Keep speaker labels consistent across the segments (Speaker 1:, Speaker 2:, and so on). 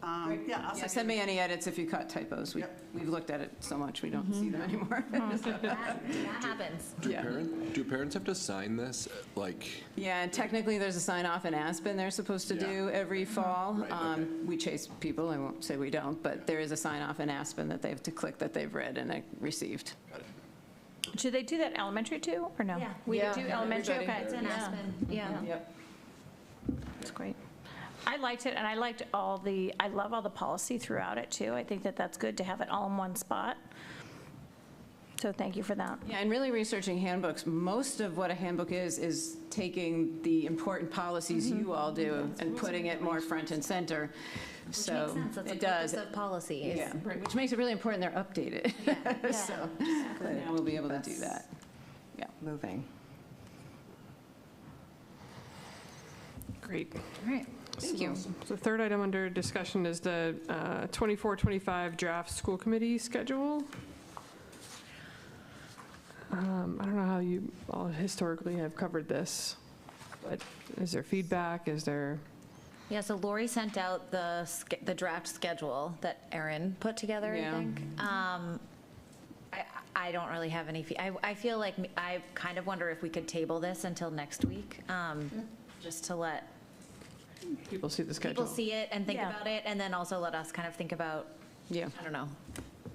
Speaker 1: Um,
Speaker 2: Great.
Speaker 1: Yeah, I'll
Speaker 2: Yeah,
Speaker 1: send
Speaker 3: So
Speaker 1: you.
Speaker 3: send me any edits if you caught typos. We-
Speaker 1: Yep.
Speaker 3: We've looked at it so much, we don't see them
Speaker 4: Mm-hmm.
Speaker 3: anymore.
Speaker 4: That that happens.
Speaker 5: Do
Speaker 3: Yeah.
Speaker 5: parent, do parents have to sign this, uh, like?
Speaker 3: Yeah, and technically, there's a sign off in Aspen they're supposed to
Speaker 5: Yeah. Mm-hmm.
Speaker 3: do every fall.
Speaker 5: Right,
Speaker 3: Um,
Speaker 5: okay.
Speaker 3: We chase people, I won't say we don't, but there is a sign off in Aspen that they have to click that they've read and uh, received.
Speaker 6: Should they do that elementary too, or no?
Speaker 4: Yeah.
Speaker 6: We
Speaker 3: Yeah.
Speaker 6: do elementary,
Speaker 3: Everybody.
Speaker 6: okay.
Speaker 4: It's in
Speaker 6: Yeah.
Speaker 4: Aspen, yeah.
Speaker 3: Yep.
Speaker 6: That's great. I liked it, and I liked all the, I love all the policy throughout it too. I think that that's good to have it all in one spot. So thank you for that.
Speaker 3: Yeah, and really researching handbooks, most of what a handbook is, is taking the important policies
Speaker 4: Mm-hmm.
Speaker 3: you all do and putting it more front and center.
Speaker 4: Which makes
Speaker 3: So
Speaker 4: sense, that's the
Speaker 3: it does.
Speaker 4: purpose of policy is-
Speaker 3: Yeah, which makes it really important they're updated.
Speaker 4: yeah.
Speaker 3: So now we'll be able to do that.
Speaker 1: Moving.
Speaker 7: Great.
Speaker 4: All right.
Speaker 3: Thank you.
Speaker 7: The third item under discussion is the uh, 24, 25 draft school committee schedule. Um, I don't know how you all historically have covered this, but is there feedback? Is there?
Speaker 4: Yeah, so Lori sent out the, sch- the draft schedule that Erin put together, I
Speaker 3: Yeah.
Speaker 4: think. Um, I, I don't really have any, fe- I, I feel like, m- I kind of wonder if we could table this until next week, um, just to let
Speaker 7: People see the
Speaker 4: people
Speaker 7: schedule.
Speaker 4: see it and think
Speaker 6: Yeah.
Speaker 4: about it, and then also let us kind of think about,
Speaker 3: Yeah.
Speaker 4: I don't know,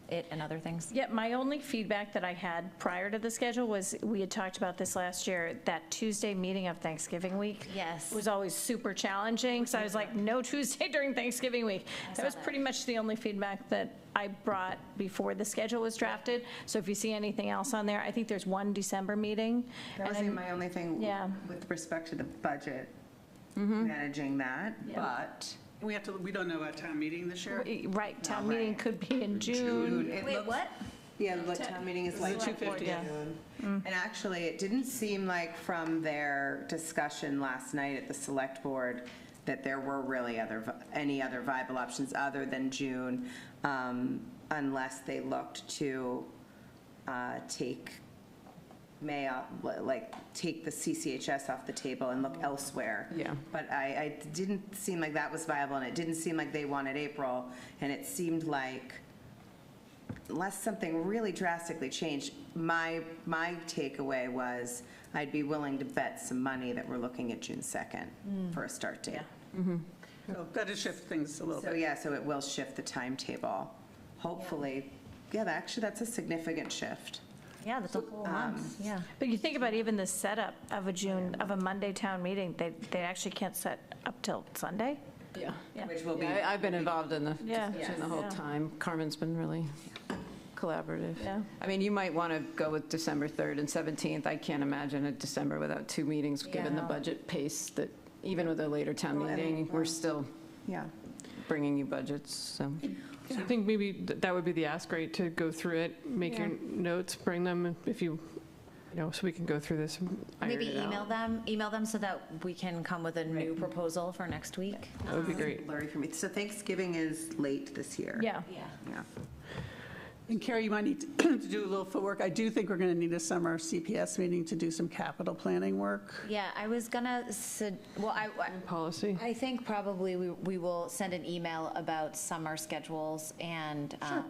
Speaker 4: it and other things.
Speaker 6: Yeah, my only feedback that I had prior to the schedule was, we had talked about this last year, that Tuesday meeting of Thanksgiving week.
Speaker 4: Yes.
Speaker 6: Was always super challenging, so I was like, no Tuesday during Thanksgiving week. That was
Speaker 4: that.
Speaker 6: pretty much the only feedback that I brought before the schedule was drafted. So if you see anything else on there, I think there's one December meeting.
Speaker 1: That was
Speaker 6: and I'm-
Speaker 1: my only thing
Speaker 6: Yeah. Mm-hmm.
Speaker 2: With respect to the budget, managing that, but
Speaker 1: We have to, we don't know about town meeting this year.
Speaker 6: Right, town
Speaker 1: Not right.
Speaker 6: meeting could be in June.
Speaker 1: Dude, it
Speaker 4: Wait,
Speaker 1: looks-
Speaker 4: what?
Speaker 2: Yeah, the town meeting is like.
Speaker 1: Select board,
Speaker 2: 2:50.
Speaker 1: yeah.
Speaker 2: And actually, it didn't seem like from their discussion last night at the select board that there were really other, vi- any other viable options other than June, um, unless they looked to uh, take May, off- like, take the CCHS off the table and look elsewhere.
Speaker 3: Yeah.
Speaker 2: But I, I it didn't seem like that was viable, and it didn't seem like they wanted April, and it seemed like unless something really drastically changed, my, my takeaway was I'd be willing to bet some money that we're looking at June 2nd for a start date.
Speaker 1: So That'll shift things a little
Speaker 2: So,
Speaker 1: bit.
Speaker 2: yeah, so it will shift the timetable, hopefully. Yeah, that- actually, that's a significant shift.
Speaker 4: Yeah, that's a whole month, yeah.
Speaker 6: But you think about even the setup of a June, of a Monday town meeting, they, they actually can't set up till Sunday?
Speaker 3: Yeah.
Speaker 6: Yeah.
Speaker 2: Which will be,
Speaker 3: Yeah, I- I've been involved in the
Speaker 6: Yeah.
Speaker 3: discussion the whole
Speaker 6: Yeah.
Speaker 3: time. Carmen's been really collaborative.
Speaker 6: Yeah.
Speaker 3: I mean, you might want to go with December 3rd and 17th. I can't imagine a December without two meetings, given the
Speaker 4: Yeah.
Speaker 3: budget pace that, even with a later town
Speaker 2: Well, and-
Speaker 3: meeting, we're still
Speaker 2: yeah.
Speaker 3: bringing you budgets, so.
Speaker 7: So I think maybe th- that would be the ask, right, to go through it, make your notes, bring them if you, you know, so we can go through this. and iron
Speaker 4: Maybe
Speaker 7: it out.
Speaker 4: email them, email them so that we can come with a new proposal for next week.
Speaker 7: That would be great.
Speaker 2: Blurry for me. So Thanksgiving is late this year.
Speaker 6: Yeah.
Speaker 4: Yeah.
Speaker 2: Yeah.
Speaker 1: And Carrie, you might need to to do a little footwork. I do think we're going to need a summer CPS meeting to do some capital planning work.
Speaker 4: Yeah, I was gonna, sug- well, I, I-
Speaker 7: Policy.
Speaker 4: I think probably we, we will send an email about summer schedules and, um,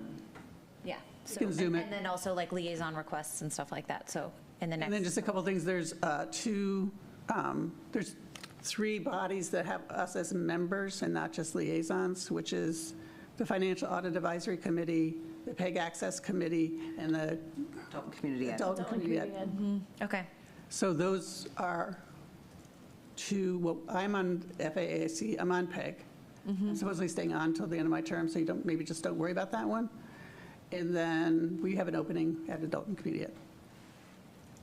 Speaker 4: yeah. So
Speaker 1: can zoom it.
Speaker 4: And then also like liaison requests and stuff like that, so in the
Speaker 1: And then
Speaker 4: next,
Speaker 1: just a couple things, there's uh, two, um, there's three bodies that have us as members and not just liaisons, which is the Financial Audit Advisory Committee, the PEG Access Committee, and the
Speaker 2: Adult and community ed.
Speaker 1: Adult and Community Ed.
Speaker 4: okay.
Speaker 1: So those are two, well, I'm on FAAC, I'm on PEG. I'm supposedly staying on until the end of my term, so you don't, maybe just don't worry about that one. And then we have an opening at Adult and Community Ed.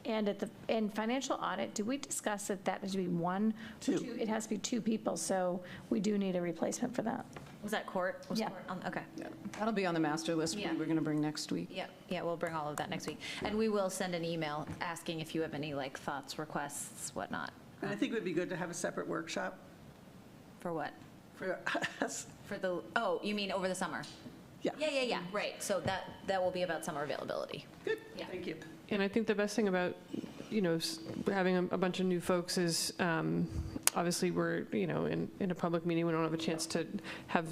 Speaker 6: And at the, in financial audit, did we discuss that that is to be one? or
Speaker 1: Two.
Speaker 6: It has to be two people, so we do need a replacement for that.
Speaker 4: Was that court? Was
Speaker 6: Yeah.
Speaker 4: court on- Okay.
Speaker 3: That'll be on the master list we
Speaker 4: Yeah.
Speaker 3: we're going to bring next week.
Speaker 4: Yeah, yeah, we'll bring all of that next week. And we will send an email asking if you have any like thoughts, requests, whatnot,
Speaker 1: And I think it would be good to have a separate workshop
Speaker 4: for what?
Speaker 1: for us.
Speaker 4: For the, oh, you mean over the summer?
Speaker 1: Yeah.
Speaker 4: Yeah, yeah, yeah, right. So that, that will be about summer availability.
Speaker 1: Good,
Speaker 4: Yeah.
Speaker 1: thank you.
Speaker 7: And I think the best thing about, you know, s- having a a bunch of new folks is, um, obviously, we're, you know, in, in a public meeting, we don't have a chance to have